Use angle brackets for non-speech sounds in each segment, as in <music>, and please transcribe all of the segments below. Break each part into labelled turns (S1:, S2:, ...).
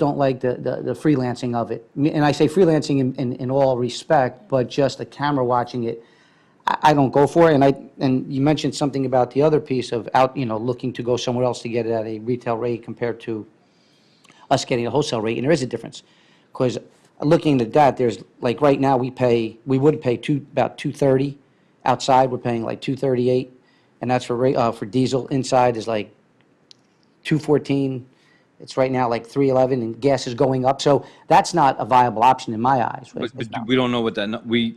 S1: don't like the, the the freelancing of it. Me- And I say freelancing in, in, in all respect, but just the camera watching it, I, I don't go for it. And I, and you mentioned something about the other piece of out, you know, looking to go somewhere else to get it at a retail rate compared to us getting a wholesale rate, and there is a difference. Because looking at that, there's, like, right now, we pay, we would pay two, about 230. Outside, we're paying like 238, and that's for, ra- uh, for diesel. Inside is like 214. It's right now like 311, and gas is going up. So that's not a viable option in my eyes.
S2: But,
S1: It's
S2: but
S1: not.
S2: we don't know what that, nu- we,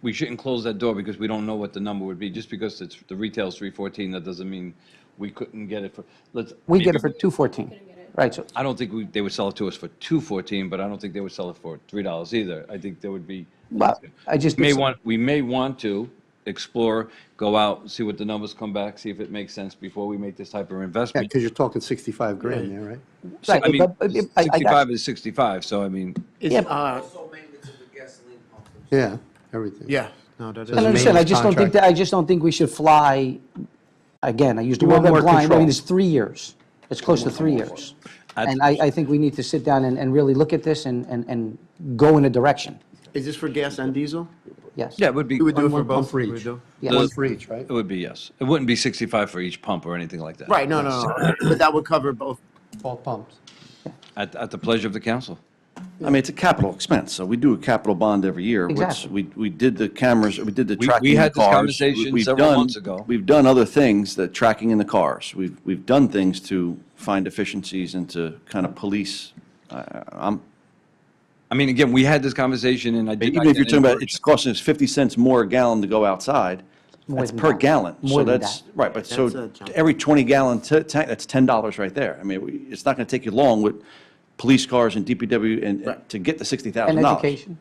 S2: we shouldn't close that door because we don't know what the number would be. Just because it's, the retail's three fourteen, that doesn't mean we couldn't get it for, let's.
S1: We get it for 214, right? So
S2: I don't think we, they would sell it to us for two fourteen, but I don't think they would sell it for three dollars either. I think there would be.
S1: Well, I just-
S2: May want, we may want to explore, go out, see what the numbers come back, see if it makes sense before we make this type of
S3: Yeah,
S2: investment.
S3: because you're talking 65 grand there, right?
S2: So, I
S1: Right,
S2: mean,
S1: but- but- I- I got-
S2: sixty-five is sixty-five, so I mean,
S4: Is,
S1: Yeah.
S4: uh,
S5: Also maintenance of the gasoline pump.
S3: Yeah, everything.
S4: yeah, no, that
S1: I
S3: Doesn't
S4: is,
S3: make-
S1: understand, I just don't think,
S3: contract.
S1: that I just don't think we should fly, again, I used the
S3: You
S1: word
S3: want more
S1: blind, I mean,
S3: control.
S1: it's three years. It's close to three years. And I, I think we need to sit down and, and really look at this and, and, and go in a direction,
S4: is this for gas and diesel?
S1: yes.
S2: yeah, it would be.
S4: You would do it
S3: One-
S4: for
S3: one pump
S4: both?
S3: for
S4: You would
S3: each.
S4: do?
S1: Yes.
S3: One for each, right?
S2: It would be, yes. It wouldn't be 65 for each pump or anything like that.
S4: Right, no, no, no, but that would cover both.
S3: All pumps.
S2: At, at the pleasure of the council.
S6: I mean, it's a capital expense, so we do a capital bond every year. which
S1: Exactly.
S6: We, we did the cameras, we did the
S2: We- we
S6: tracking in the
S2: had this
S6: cars.
S2: conversation
S6: We've
S2: several
S6: done-
S2: months ago.
S6: We've done other things, that tracking in the cars. We've, we've done things to find efficiencies and to kind of police. I- I'm,
S2: I mean, again, we had this conversation and I did.
S6: even if you're talking about, it's costing us 50 cents more a gallon to go outside,
S1: More
S6: that's
S1: than
S6: per
S1: that.
S6: gallon.
S1: More
S6: So
S1: than
S6: that's, right, but
S4: That's a
S6: so
S4: jump.
S6: every 20 gallon ta- tank, that's $10 right there. I mean, we- it's not going to take you long with police cars and DPW and- and to get the $60,000.
S1: And education,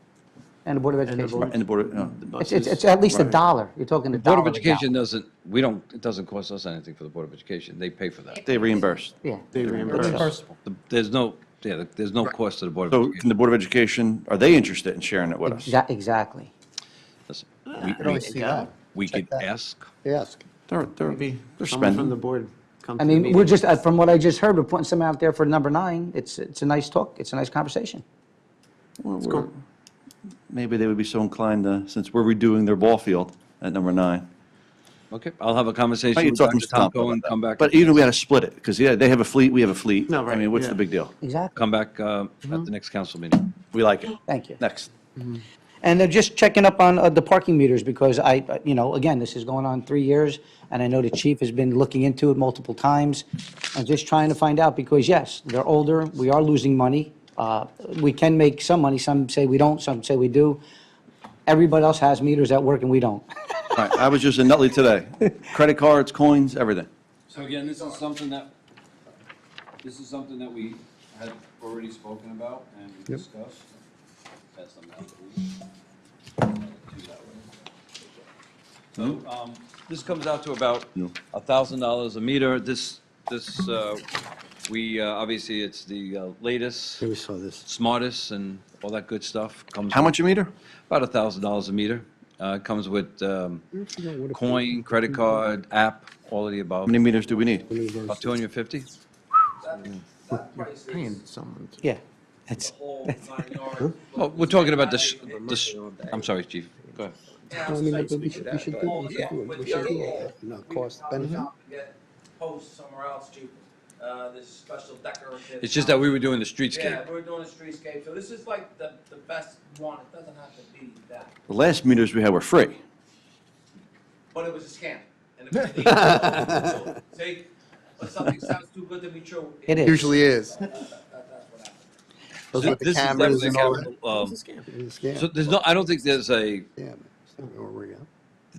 S1: and the Board of Education.
S6: Right, And the Board of, uh, the-
S1: It's, it's, it's at least a
S6: Right.
S1: dollar, you're talking a
S2: Board
S1: dollar.
S2: of
S1: a gallon.
S2: Education doesn't, we don't, it doesn't cost us anything for the Board of Education. They pay for that.
S6: They reimbursed.
S1: Yeah.
S4: They reimburse.
S2: The- There's no, yeah, there's no cost to the Board of
S6: So can
S2: Education.
S6: the Board of Education, are they interested in sharing it with us?
S1: Exa- Exactly.
S2: Listen, we-
S3: I don't see
S4: uh,
S3: that.
S2: We could ask.
S3: Ask.
S6: They're, they're, they're
S4: Someone from the
S6: spending.
S4: board come
S1: I
S4: to the
S1: mean, we're
S4: meeting.
S1: just, uh, from what I just heard, we're putting some out there for number nine, it's, it's a nice talk, it's a nice conversation.
S6: We're- we're- Maybe they would be so inclined to, since we're redoing their ball field at number nine.
S2: Okay, I'll have a
S6: Why
S2: conversation
S6: don't you
S2: with
S6: talk to
S2: Dr.
S6: Mr. Tomko
S2: Tomko and
S6: about that?
S2: come back.
S6: But even if we had to split it, because yeah, they have a fleet, we have a fleet.
S4: No, right,
S6: I mean, what's
S4: yeah.
S6: the big deal?
S1: Exactly,
S2: Come back uh, at the next council meeting.
S6: We like it.
S1: thank you.
S6: Next.
S1: And they're just checking up on uh, the parking meters, because I, I- you know, again, this is going on three years, and I know the chief has been looking into it multiple times, and just trying to find out, because yes, they're older, we are losing money. Uh, We can make some money, some say we don't, some say we do. Everybody else has meters that work and we don't. <laughs>
S6: All right, I was just in Nutley today. Credit cards, coins, everything.
S2: So again, this is something that, this is something that we had already spoken about and discussed. So, um, this comes out to about a thousand dollars a meter. This, this, uh, we, uh, obviously, it's the uh, latest,
S3: Yeah, we saw this.
S2: smartest and all that good stuff. Comes
S6: How much a meter?
S2: About a thousand dollars a meter. Uh, it comes with, um, coin, credit card, app, all of the
S6: How
S2: above.
S6: many meters do we need?
S2: About 250?
S5: That price
S4: Paying
S5: is
S4: someone. to-
S1: Yeah.
S5: the whole nine yards.
S2: Well, Oh, we're talking about the, sh- the, sh- I'm sorry, chief. Go ahead.
S5: Yeah,
S3: do
S5: Yeah, with the other whole, we could
S3: Cost
S5: probably
S3: benefit.
S5: shop and get posts somewhere else cheaper. Uh, this is special decorative.
S2: It's just that we were doing the
S5: Yeah,
S2: streetscape.
S5: we're doing a streetscape, so this is like the, the best one, it doesn't have to be that,
S6: The last meters we had were free.
S5: but it was a scam. And it
S2: <laughs>
S5: was a- so, Take, but something sounds too good to be true.
S1: It is.
S3: Usually is.
S5: That- that's what happened.
S3: Those with the
S2: This is
S3: cameras
S2: definitely
S3: and all
S2: a
S3: that.
S2: capital, um,
S3: It's a scam.
S2: So there's no, I don't think there's a,
S3: Yeah, but it's not gonna work out.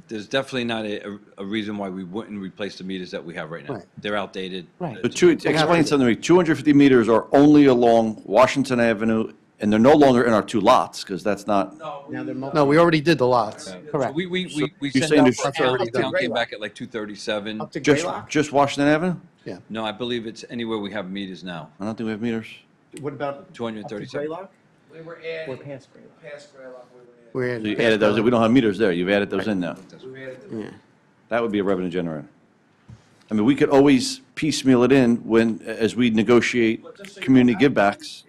S2: there's definitely not a, a reason why we wouldn't replace the meters that we have right now.
S3: Right.
S2: They're outdated.
S1: Right.
S6: So two, explain something to me. 250 meters are only along Washington Avenue, and they're no longer in our two lots, because that's not,
S5: No, we-
S4: Now they're multi-
S3: No, we already did the lots.
S1: Correct.
S2: We, we,
S6: So
S2: we, we
S6: you're
S2: sent
S6: saying
S2: out,
S6: there's-
S2: for
S3: That's
S2: town,
S3: already
S2: the town
S3: done.
S2: came back at like 237.
S4: Up to
S6: just,
S4: Greylock?
S6: just Washington Avenue?
S3: Yeah.
S2: No, I believe it's anywhere we have meters now,
S6: I don't think we have meters.
S4: What about? up to
S2: 237.
S4: Greylock?
S5: We were adding,
S4: Or past Greylock?
S5: past Greylock, we were
S3: We're
S6: So you added those, we don't have meters there, you've added those in now.
S5: adding, we were adding. the-
S4: Yeah.
S6: That would be a revenue generator. I mean, we could always piecemeal it in when, as we negotiate community givebacks.